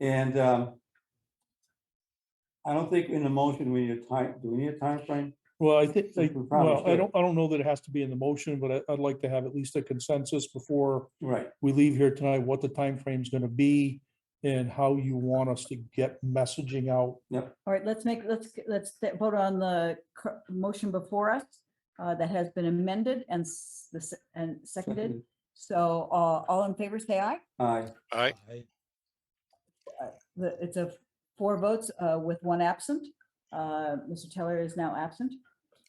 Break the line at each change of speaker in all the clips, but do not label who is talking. And um, I don't think in the motion, we need a time, do we need a timeframe?
Well, I think,
Think
I-
we probably
well, I
should.
don't, I don't know that it has to be in the motion, but I, I'd like to have at least a consensus before
Right,
we leave here tonight, what the timeframe's gonna be and how you want us to get messaging out.
All right, let's make, let's, let's th- vote on the cur- motion before us uh, that has been amended and s- the se- and seconded. So uh, all in favor, say aye.
aye,
Aye.
The- It's a four votes uh, with one absent. Uh, Mr. Teller is now absent.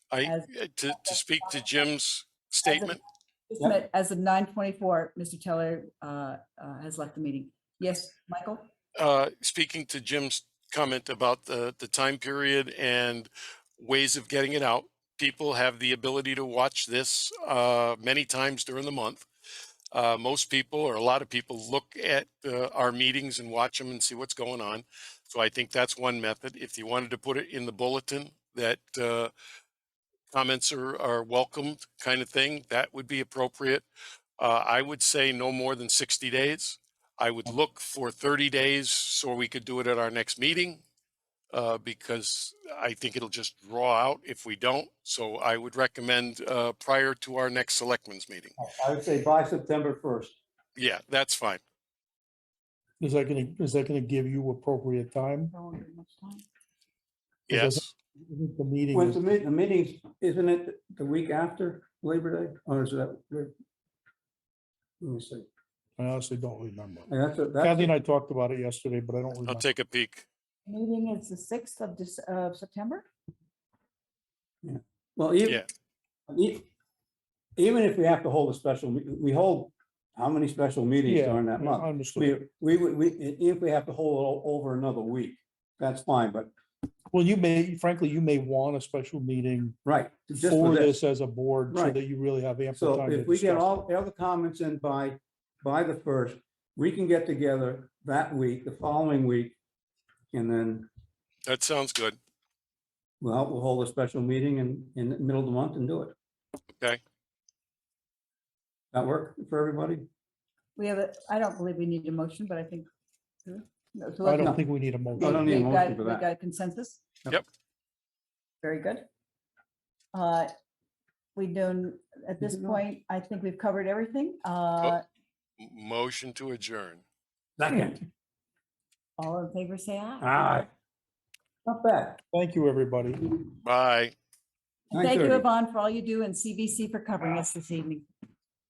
I, uh,
As-
to, to speak to Jim's statement,
Just
Yep.
met- As of 9:24, Mr. Teller uh, uh, has left the meeting. Yes, Michael?
uh, speaking to Jim's comment about the, the time period and ways of getting it out. People have the ability to watch this, uh, many times during the month. Uh, most people, or a lot of people, look at, uh, our meetings and watch them and see what's going on. So I think that's one method. If you wanted to put it in the bulletin that, uh, comments are, are welcomed kind of thing, that would be appropriate. Uh, I would say no more than sixty days. I would look for 30 days so we could do it at our next meeting. Uh, because I think it'll just draw out if we don't. So I would recommend, uh, prior to our next selectmen's meeting.
I would say by September first.
Yeah, that's fine.
Is that gonna, is that gonna give you appropriate time?
No one gave much time.
It doesn't-
Yes.
I think The meeting
With the
is,
meet, the meetings, isn't it the week after Labor Day, or is that? Let me see,
I honestly don't remember.
and that's, a-
Kathy
that's,
and I talked about it yesterday, but I don't
I'll
remember.
take a peek.
Meeting is the 6th of Dec- of September?
well, even,
Yeah.
e- even if we have to hold a special, we, we hold, how many special meetings
Yeah,
during that month?
I understood.
We, we, would- we, if we have to hold it o- over another week, that's fine, but,
Well, you may, frankly, you may want a special meeting
right. just
for
this.
this as a board so
Right.
that you really have ample
So
time to
if we get
discuss.
all, all the comments in by, by the first, we can get together that week, the following week. And then,
That sounds good.
well, we'll hold a special meeting in, in the middle of the month and do it.
Okay.
That work for everybody?
We have, a. I don't believe we need a motion, but I think. No, so
I
let's-
don't think we need a
I
motion.
don't need a
We've
motion
got,
for
we've
that.
got a consensus?
Yep.
Very good. Uh, We don't, at this
Moving on.
point, I think we've covered everything. Uh,
M- Motion to adjourn.
Second.
All in favor, say aye.
Aye. Not bad.
Thank you, everybody.
Bye.
Thank you,
9:30.
Yvonne, for all you do and CVC for covering us this evening.